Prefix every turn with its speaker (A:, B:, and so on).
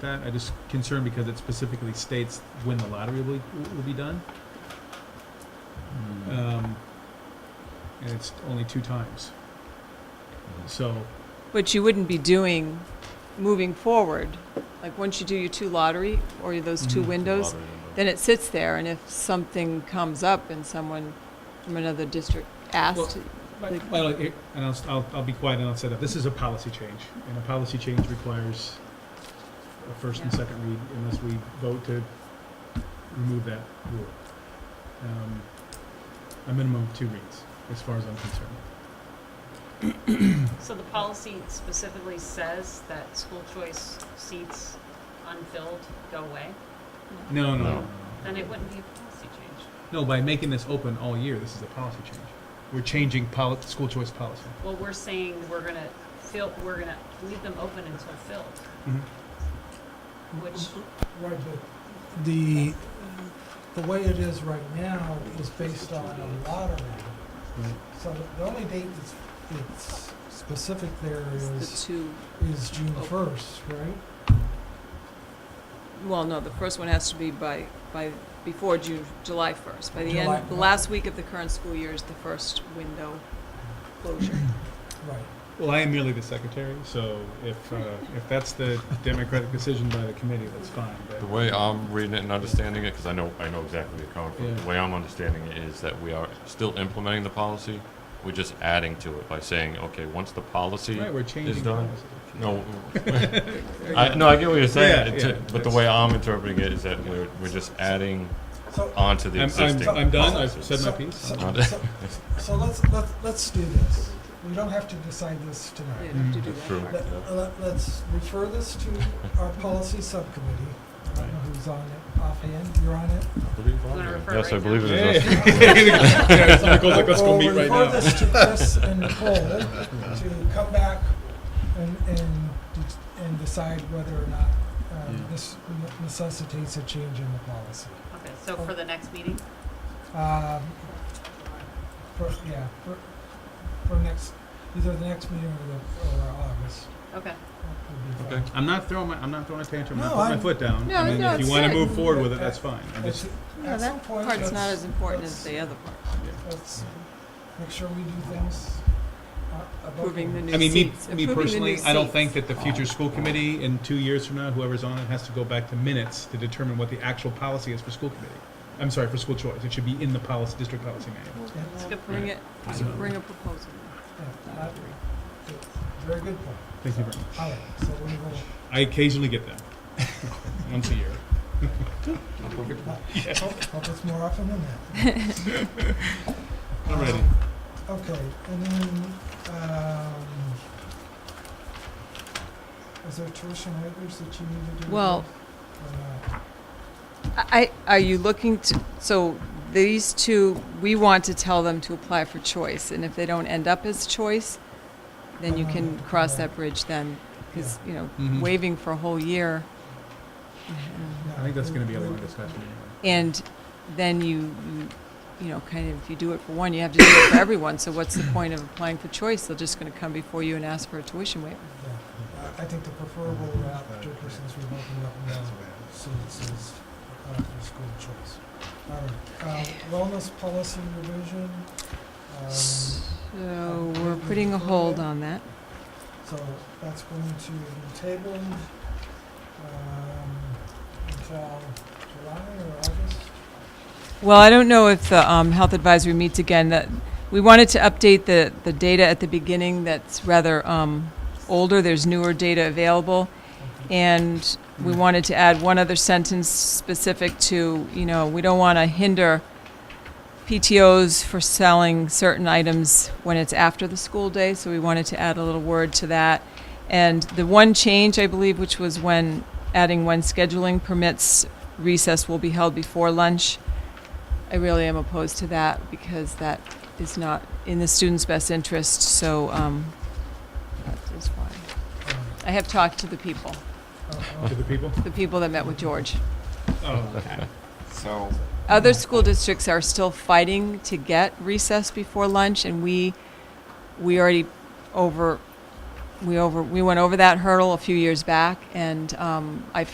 A: that. I just concerned because it specifically states when the lottery will, be- will be done. Um, and it's only two times. So,
B: Which you wouldn't be doing moving forward. Like, once you do your two lottery or those two
A: Mhm.
B: windows, then it sits there, and if something comes up and someone from another district
A: Well,
B: asks,
A: but-
B: Like-
A: well, it- and I'll, I'll, I'll be quiet and I'll say that this is a policy change, and a policy change requires a first and
B: Yeah.
A: second read unless we vote to remove that rule. Um, A minimum of two reads, as far as I'm concerned.
C: So the policy specifically says that school choice seats unfilled go away?
A: No, no,
D: No.
A: no, no.
C: Then it wouldn't be a policy change.
A: No, by making this open all year, this is a policy change. We're changing poli- school choice policy.
C: Well, we're saying we're gonna fill, we're gonna leave them open until filled, which,
E: Right, but the, the way it is right now is based on a lottery.
A: Right.
E: So the- the only date that's, it's specific there
B: the
E: is,
B: two,
E: is June first, right?
B: well, no, the first one has to be by, by, before June, July 1st. By the
E: July.
B: end, the last week of the current school year is the first window closure.
E: Right.
A: Well, I am merely the secretary, so if, uh, if that's the democratic decision by the committee, that's fine.
D: The
A: But
D: way I'm reading it and understanding it, because I know, I know exactly where you're coming from,
A: Yeah.
D: the way I'm understanding it is that we are still implementing the policy, we're just adding to it by saying, okay, once the policy,
A: Right, we're changing
D: It's done.
A: policy.
D: no. I, no, I get what you're saying,
A: Yeah,
D: it's a-
A: yeah,
D: but the
A: that's-
D: way I'm interpreting it is that we're, we're just adding
E: So,
D: onto the
A: I'm,
D: existing.
A: I'm, I'm done, I've
D: policies.
A: Uh, said my
E: So-
A: piece.
E: so-
D: Not-
E: so let's, let's, let's do this. We don't have to decide this
B: You
E: tonight.
B: have to do
D: That's
B: that
D: true.
B: part.
E: Let,
D: Yeah.
E: let- let's refer this to our policy subcommittee. I don't know who's on it offhand. You're on it?
C: wanna refer
D: Yes, I
C: right
D: believe it
C: now?
A: Hey.
D: is us.
A: Yeah, so Nicole's like, let's go
E: Well,
A: meet right
E: We'll
A: now.
E: refer this to Chris and Nicole to come back and, and, de- and decide whether or not um,
A: Yeah.
E: this necessitates a change in the policy.
C: okay, so for the next meeting?
E: Um, For, yeah, for, for next, either the next meeting or the, or August
C: Okay,
E: would be
D: Okay.
E: fine.
A: I'm not throwing my, I'm not throwing a tantrum, I'm not
E: No,
A: putting
E: I'm-
A: my foot down.
B: No,
A: I mean,
B: no,
A: if you
B: it's
A: wanna
B: good.
A: move forward with it, that's fine. I just,
B: No,
E: At some
B: that
E: point,
B: part's not
E: let's-
B: as important
E: let's-
B: as the other part.
A: yeah.
E: Let's make sure we do things uh, above
B: Approving the
E: board.
B: new
A: I mean, me,
B: seats.
A: me
B: Approving the new
A: personally, I don't
B: seats.
A: think that the future school committee in two years from now, whoever's on it, has to go back to minutes to determine what the actual policy is for school committee. I'm sorry, for school choice. It should be in the policy, district policy manual.
C: it's a good point.
B: Bring it,
A: So-
B: bring a proposal.
E: Yeah, that- Very good point.
A: Thank you very much.
E: All right, so we will
A: I occasionally get them, once a year.
E: Hope hope it's more often than that.
A: I'm ready.
E: Okay, and then, um, is there tuition waivers that you need to do?
B: Well-
E: Or not?
B: I, are you looking to, so these two, we want to tell them to apply for choice, and if they don't end up as choice, then you can cross that bridge then, because, you know,
A: Mhm.
B: waiving for a whole year,
A: I think that's
E: No,
A: gonna be a
E: we-
A: long
E: we-
A: discussion anyway.
B: and then you, you- you know, kind of, if you do it for one, you have to do it for everyone, so what's the point of applying for choice? They're just gonna come before you and ask for a tuition waiver.
E: yeah. I I think the preferable route, particularly since we've opened up now, since is uh, for school choice. All right, um, wellness policy revision, um,
B: So, we're putting a hold on that.
E: So that's going to be tabled um, until July or August?
B: Well, I don't know if the um, health advisory meets again. That we wanted to update the, the data at the beginning. That's rather um, older. There's newer data available, and we wanted to add one other sentence specific to you know we don't want to hinder PTOS for selling certain items when it's after the school day. So we wanted to add a little word to that. And the one change I believe, which was when adding when scheduling permits recess will be held before lunch. I really am opposed to that because that is not in the students' best interest, so um, that is why.
E: Um,
B: I have talked to the people,
E: uh,
A: To the people?
B: the people that met with George.
A: Oh, okay.
F: So,
B: Other school districts are still fighting to get recess before lunch, and we, we already over, we over, we went over that hurdle a few years back, and um, I